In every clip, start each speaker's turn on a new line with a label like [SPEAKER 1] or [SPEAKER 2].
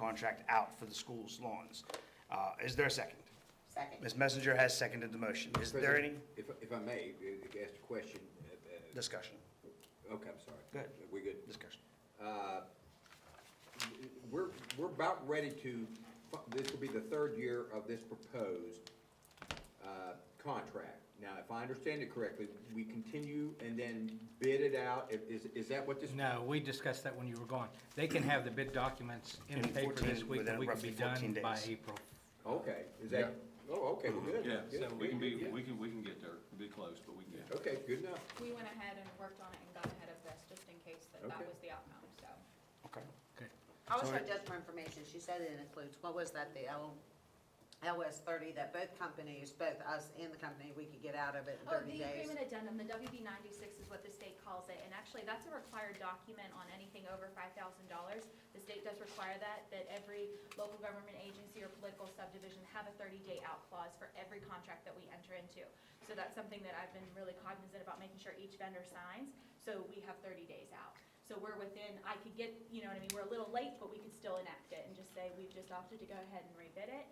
[SPEAKER 1] contract out for the school's lawns. Uh, Is there a second?
[SPEAKER 2] Second.
[SPEAKER 1] Ms. Messenger has seconded the motion. Is there any
[SPEAKER 3] President, If, if I may, if you asked a question, uh,
[SPEAKER 1] discussion?
[SPEAKER 3] uh, okay, I'm sorry.
[SPEAKER 1] Go ahead.
[SPEAKER 3] We good?
[SPEAKER 1] Discussion.
[SPEAKER 3] Uh, We're, we're about ready to, fu- this will be the third year of this proposed uh, contract. Now, if I understand it correctly, we continue and then bid it out, If- is, is that what this?
[SPEAKER 4] No, we discussed that when you were gone. They can have the bid documents in the
[SPEAKER 1] In
[SPEAKER 4] paper
[SPEAKER 1] 14
[SPEAKER 4] this week,
[SPEAKER 1] within
[SPEAKER 4] and we can
[SPEAKER 1] roughly
[SPEAKER 4] be
[SPEAKER 1] 14
[SPEAKER 4] done by
[SPEAKER 1] days.
[SPEAKER 4] April.
[SPEAKER 3] Okay, is that, oh, okay, well, good.
[SPEAKER 5] Yeah,
[SPEAKER 3] good,
[SPEAKER 5] so we can
[SPEAKER 3] good,
[SPEAKER 5] be,
[SPEAKER 3] good.
[SPEAKER 5] we can, we can get there, We'll be close, but we can get there.
[SPEAKER 3] Okay, good enough.
[SPEAKER 2] We went ahead and worked on it and got ahead of this, just in case that that
[SPEAKER 3] Okay.
[SPEAKER 2] was the outcome, so.
[SPEAKER 1] Okay.
[SPEAKER 6] Also,
[SPEAKER 1] Sorry.
[SPEAKER 6] just for information, she said it includes, what was that, the L, LS thirty, that both companies, both us and the company, we could get out of it in
[SPEAKER 2] Oh,
[SPEAKER 6] thirty
[SPEAKER 2] the
[SPEAKER 6] days?
[SPEAKER 2] agreement addendum, the WB ninety-six is what the state calls it, and actually, that's a required document on anything over five thousand dollars. The state does require that, that every local government agency or political subdivision have a thirty-day out clause for every contract that we enter into. So that's something that I've been really cognizant about, making sure each vendor signs, so we have thirty days out. So we're within, I could get, you know what I mean, we're a little late, but we could still enact it and just say, we've just opted to go ahead and rebid it,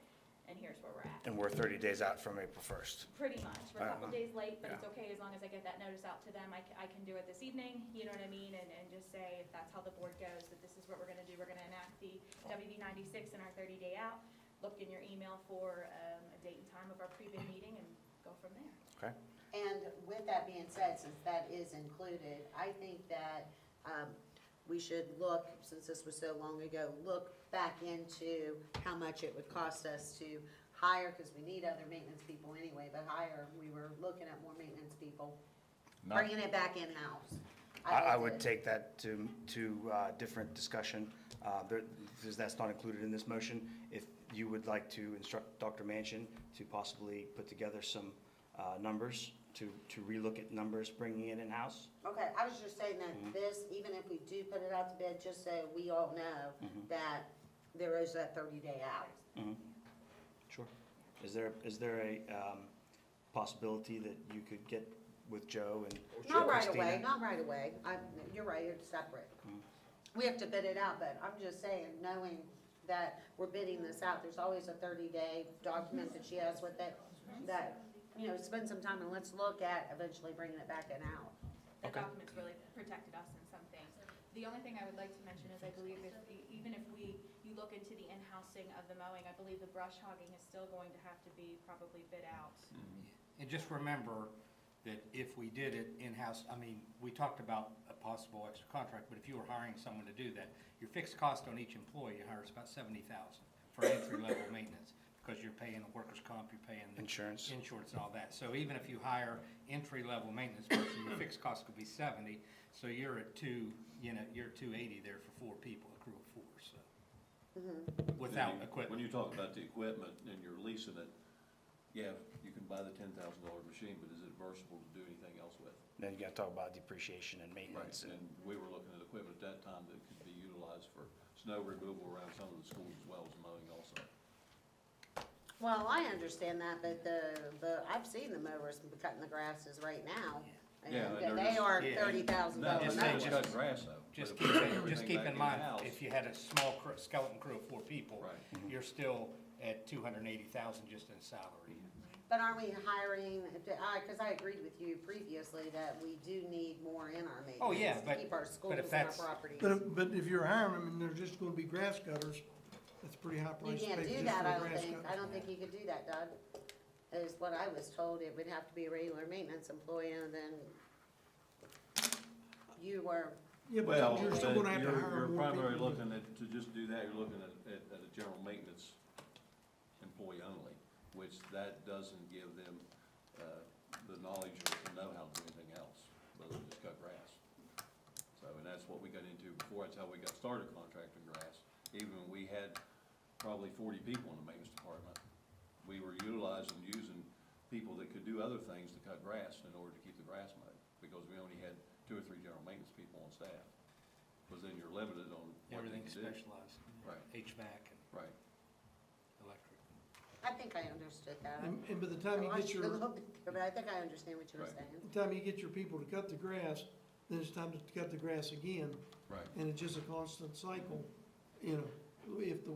[SPEAKER 2] and here's where we're at.
[SPEAKER 1] And we're 30 days out from April 1st.
[SPEAKER 2] Pretty much, we're a couple
[SPEAKER 1] Uh-huh.
[SPEAKER 2] days late, but it's
[SPEAKER 1] Yeah.
[SPEAKER 2] okay as long as I get that notice out to them, I can, I can do it this evening, you know what I mean? And, and just say, if that's how the board goes, that this is what we're gonna do, we're gonna enact the WB ninety-six in our thirty day out. Look in your email for, um, a date and time of our pre-bid meeting and go from there.
[SPEAKER 1] Okay?
[SPEAKER 6] And with that being said, since that is included, I think that, um, we should look, since this was so long ago, look back into how much it would cost us to hire, cause we need other maintenance people anyway, but hire, we were looking at more maintenance people,
[SPEAKER 5] Not,
[SPEAKER 6] bringing it back in-house.
[SPEAKER 1] I, I
[SPEAKER 6] to-
[SPEAKER 1] would take that to, to uh, different discussion, uh, there- because that's not included in this motion. If you would like to instruct Dr. Manchin to possibly put together some uh, numbers, to, to relook at numbers, bringing it in-house,
[SPEAKER 6] Okay, I was just saying that this, even if we do put it out to bid, just so we all know that there is that thirty day out.
[SPEAKER 1] Sure. Mm-hmm. Is there, is there a um, possibility that you could get with Joe and
[SPEAKER 6] Not right
[SPEAKER 1] Christina?
[SPEAKER 6] away, not right away, I, you're right, it's separate. We have to bid it out, but I'm just saying, knowing that we're bidding this out, there's always a thirty day document that she has with it, that, you know, spend some time and let's look at eventually bringing it back in out.
[SPEAKER 2] The
[SPEAKER 1] Okay.
[SPEAKER 2] documents really protected us in some things. The only thing I would like to mention is I believe if, even if we, you look into the in-housing of the mowing, I believe the brush hogging is still going to have to be probably bid out.
[SPEAKER 7] And just remember that if we did it in-house, I mean, we talked about a possible extra contract, but if you were hiring someone to do that, your fixed cost on each employee you hire is about seventy thousand for entry-level maintenance, because you're paying the workers' comp, you're paying the
[SPEAKER 1] Insurance.
[SPEAKER 7] insurance and all that. So even if you hire entry-level maintenance person, your fixed cost could be seventy, so you're at two, you know, you're two eighty there for four people, a crew of four, so. Without
[SPEAKER 5] when you-
[SPEAKER 7] equipment.
[SPEAKER 5] When you talk about the equipment and you're leasing it, yeah, you can buy the ten thousand dollar machine, but is it versatile to do anything else with?
[SPEAKER 1] Then you gotta talk about depreciation and
[SPEAKER 5] Right,
[SPEAKER 1] maintenance and
[SPEAKER 5] and we were looking at equipment at that time that could be utilized for snow removal around some of the schools as well as mowing also.
[SPEAKER 6] Well, I understand that, but the, the, I've seen the mowers cutting the grasses right now.
[SPEAKER 5] Yeah,
[SPEAKER 6] And
[SPEAKER 5] but they're
[SPEAKER 6] they
[SPEAKER 5] just-
[SPEAKER 6] are
[SPEAKER 7] Yeah.
[SPEAKER 6] thirty thousand
[SPEAKER 5] No,
[SPEAKER 6] dollars
[SPEAKER 5] just
[SPEAKER 7] just
[SPEAKER 6] an
[SPEAKER 7] saying,
[SPEAKER 6] hour.
[SPEAKER 7] just-
[SPEAKER 5] cut grass though.
[SPEAKER 7] Just
[SPEAKER 5] But
[SPEAKER 7] keep,
[SPEAKER 5] if we bring
[SPEAKER 7] in- just
[SPEAKER 5] everything
[SPEAKER 7] keep
[SPEAKER 5] back
[SPEAKER 7] in mind,
[SPEAKER 5] in-house,
[SPEAKER 7] if you had a small cr- skeleton crew of four people,
[SPEAKER 5] Right.
[SPEAKER 7] you're still at two hundred and eighty thousand just in salary.
[SPEAKER 5] Mm-hmm.
[SPEAKER 6] But aren't we hiring, I, cause I agreed with you previously that we do need more in our
[SPEAKER 7] Oh, yeah,
[SPEAKER 6] maintenance to
[SPEAKER 7] but-
[SPEAKER 6] keep our
[SPEAKER 7] but if
[SPEAKER 6] schools and our
[SPEAKER 7] that's-
[SPEAKER 6] properties.
[SPEAKER 8] But, if- but if you're hiring them and they're just gonna be grass cutters, that's a pretty high
[SPEAKER 6] You
[SPEAKER 8] price to pay
[SPEAKER 6] can't
[SPEAKER 8] just for
[SPEAKER 6] do
[SPEAKER 8] a
[SPEAKER 6] that, I
[SPEAKER 8] grass
[SPEAKER 6] don't think,
[SPEAKER 8] cutter.
[SPEAKER 6] I don't think you could do that, Doug, is what I was told, it would have to be a regular maintenance employee and then you were,
[SPEAKER 8] Yeah,
[SPEAKER 5] Well,
[SPEAKER 8] but you're still gonna
[SPEAKER 5] but
[SPEAKER 8] have to
[SPEAKER 5] you're,
[SPEAKER 8] hire
[SPEAKER 5] you're
[SPEAKER 8] more people.
[SPEAKER 5] primarily looking at, to just do that, you're looking at, at, at a general maintenance employee only, which that doesn't give them, uh, the knowledge or the know-how to do anything else, other than just cut grass. So, and that's what we got into before, that's how we got started contracting grass, even when we had probably forty people in the maintenance department. We were utilizing, using people that could do other things to cut grass in order to keep the grass mowed, because we only had two or three general maintenance people on staff. Because then you're limited on what they
[SPEAKER 7] Everything's
[SPEAKER 5] can do.
[SPEAKER 7] specialized,
[SPEAKER 5] Right.
[SPEAKER 7] HVAC and
[SPEAKER 5] Right,
[SPEAKER 7] electric.
[SPEAKER 6] I think I understood that.
[SPEAKER 8] And, and by the
[SPEAKER 6] I
[SPEAKER 8] time you
[SPEAKER 6] watched it
[SPEAKER 8] get
[SPEAKER 6] a
[SPEAKER 8] your,
[SPEAKER 6] little bit, But I think I understand what you were
[SPEAKER 5] Right.
[SPEAKER 6] saying.
[SPEAKER 8] the time you get your people to cut the grass, then it's time to cut the grass again,
[SPEAKER 5] right.
[SPEAKER 8] and it's just a constant cycle, you know, if the